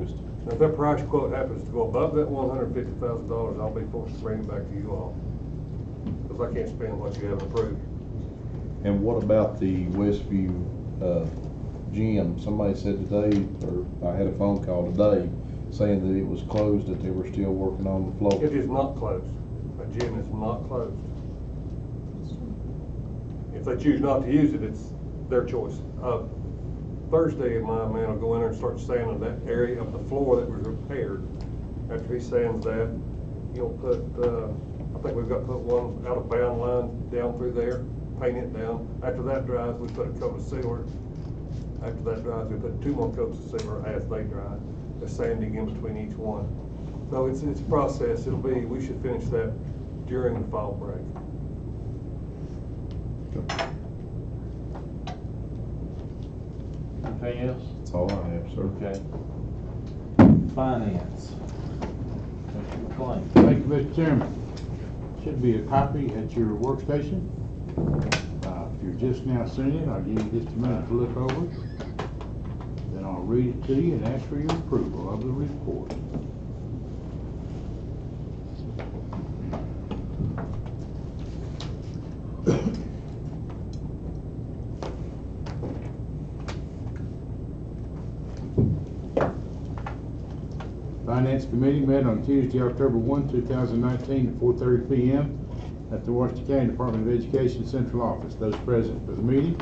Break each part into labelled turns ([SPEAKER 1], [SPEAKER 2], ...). [SPEAKER 1] Now, if that price quote happens to go above that one hundred fifty thousand dollars, I'll be forced to bring it back to you all. Because I can't spend what you haven't approved.
[SPEAKER 2] And what about the Westview, uh, gym? Somebody said today, or I had a phone call today, saying that it was closed, that they were still working on the floor.
[SPEAKER 1] It is not closed. That gym is not closed. If they choose not to use it, it's their choice. Uh, Thursday, my man will go in there and start sanding that area of the floor that was repaired. After he sands that, he'll put, uh, I think we've got to put one out of bound line down through there, paint it down. After that dries, we put a coat of sealer. After that dries, we put two more coats of sealer as they dry, the sanding in between each one. So it's, it's a process. It'll be, we should finish that during the fall break.
[SPEAKER 3] Anything else?
[SPEAKER 2] That's all I have, sir.
[SPEAKER 3] Okay. Finance. Mr. McLean.
[SPEAKER 4] Thank you, Mr. Chairman. Should be a copy at your workstation. Uh, If you're just now seeing it, I'll give you just a minute to look over. it. Then I'll read it to you and ask for your approval of the report. Finance Committee met on Tuesday, October 1, 2019, at 4:30 PM at the Washington County Department of Education Central Office. Those present for the meeting,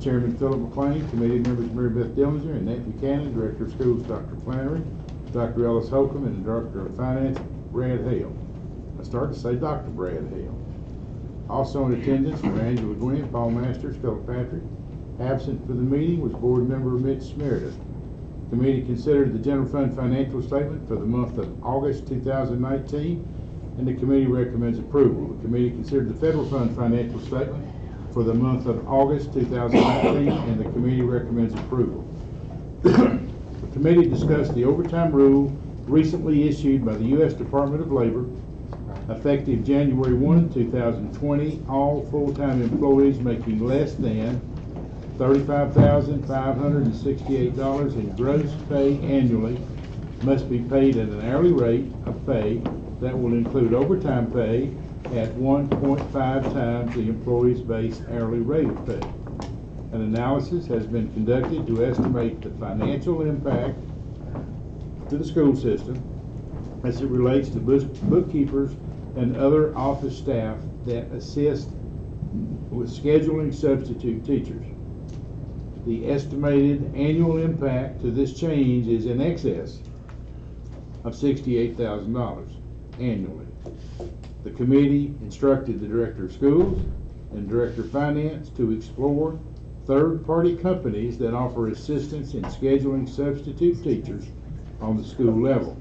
[SPEAKER 4] Chairman Philip McLean, committee members Mary Beth Dillinger and Nate Buchanan, Director of Schools Dr. Flannery, Dr. Ellis Holcomb, and the Director of Finance Brad Hale. I started to say Dr. Brad Hale. Also in attendance were Angela Gwynn, Paul Masters, Philip Patrick. Absent for the meeting was Board Member Mitch Meredith. Committee considered the general fund financial statement for the month of August 2019, and the committee recommends approval. The committee considered the federal fund financial statement for the month of August 2019, and the committee recommends approval. The committee discussed the overtime rule recently issued by the U.S. Department of Labor. Effective January 1, 2020, all full-time employees making less than thirty-five thousand, five hundred and sixty-eight dollars in gross pay annually must be paid at an hourly rate of pay that will include overtime pay at one point five times the employee's base hourly rate of pay. An analysis has been conducted to estimate the financial impact to the school system as it relates to book- bookkeepers and other office staff that assist with scheduling substitute teachers. The estimated annual impact to this change is in excess of sixty-eight thousand dollars annually. The committee instructed the Director of Schools and Director of Finance to explore third-party companies that offer assistance in scheduling substitute teachers on the school level.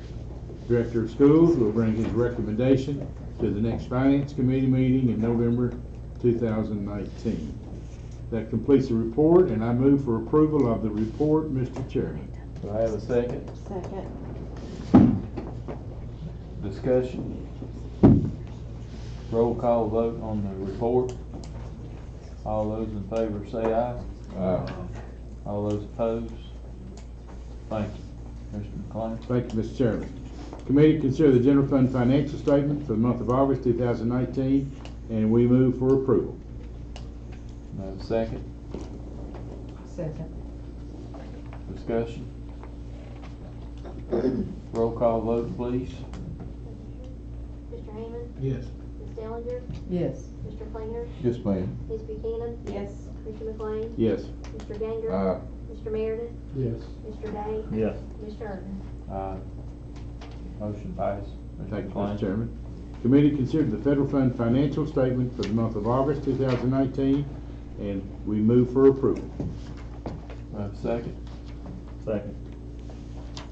[SPEAKER 4] Director of Schools will bring his recommendation to the next Finance Committee meeting in November two thousand nineteen. That completes the report, and I move for approval of the report, Mr. Chairman.
[SPEAKER 3] Do I have a second?
[SPEAKER 5] Second.
[SPEAKER 3] Discussion? Roll call vote on the report. All those in favor say aye. All those opposed? Thank you. Mr. McLean.
[SPEAKER 4] Thank you, Mr. Chairman. Committee consider the general fund financial statement for the month of August two thousand nineteen, and we move for approval.
[SPEAKER 3] Do I have a second?
[SPEAKER 5] Second.
[SPEAKER 3] Discussion? Roll call vote, please.
[SPEAKER 6] Mr. Hammond,
[SPEAKER 4] Yes.
[SPEAKER 6] Ms. Dellinger,
[SPEAKER 5] Yes.
[SPEAKER 6] Mr. Flainer,
[SPEAKER 2] Yes, ma'am.
[SPEAKER 6] Ms. Buchanan,
[SPEAKER 5] Yes.
[SPEAKER 6] Mr. McLean,
[SPEAKER 4] Yes.
[SPEAKER 6] Mr. Ganger, Mr. Meredith,
[SPEAKER 4] Yes.
[SPEAKER 6] Mr. Day,
[SPEAKER 3] Yes.
[SPEAKER 6] Mr. Irvin.
[SPEAKER 3] Aye. Motion passed.
[SPEAKER 4] Thank you,
[SPEAKER 3] McLean.
[SPEAKER 4] Mr. Chairman. Committee considered the federal fund financial statement for the month of August two thousand nineteen, and we move for approval.
[SPEAKER 3] Do I have a second? Second.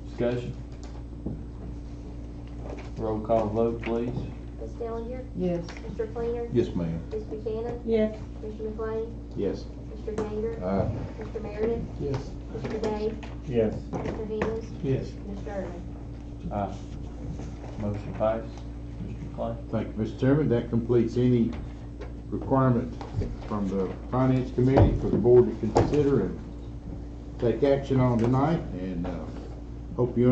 [SPEAKER 3] Discussion? Roll call vote, please.
[SPEAKER 6] Ms. Dellinger,
[SPEAKER 5] Yes.
[SPEAKER 6] Mr. Flainer,
[SPEAKER 2] Yes, ma'am.
[SPEAKER 6] Ms. Buchanan,
[SPEAKER 5] Yes.
[SPEAKER 6] Mr. McLean,
[SPEAKER 4] Yes.
[SPEAKER 6] Mr. Ganger,
[SPEAKER 2] Aye.
[SPEAKER 6] Mr. Meredith,
[SPEAKER 4] Yes.
[SPEAKER 6] Mr. Day,
[SPEAKER 3] Yes.
[SPEAKER 6] Mr. Hammond,
[SPEAKER 4] Yes.
[SPEAKER 6] Mr. Irvin.
[SPEAKER 3] Aye. Motion passed. Mr. McLean.
[SPEAKER 4] Thank you, Mr. Chairman. That completes any requirement from the Finance Committee for the board to consider and take action on tonight, and, uh, hope you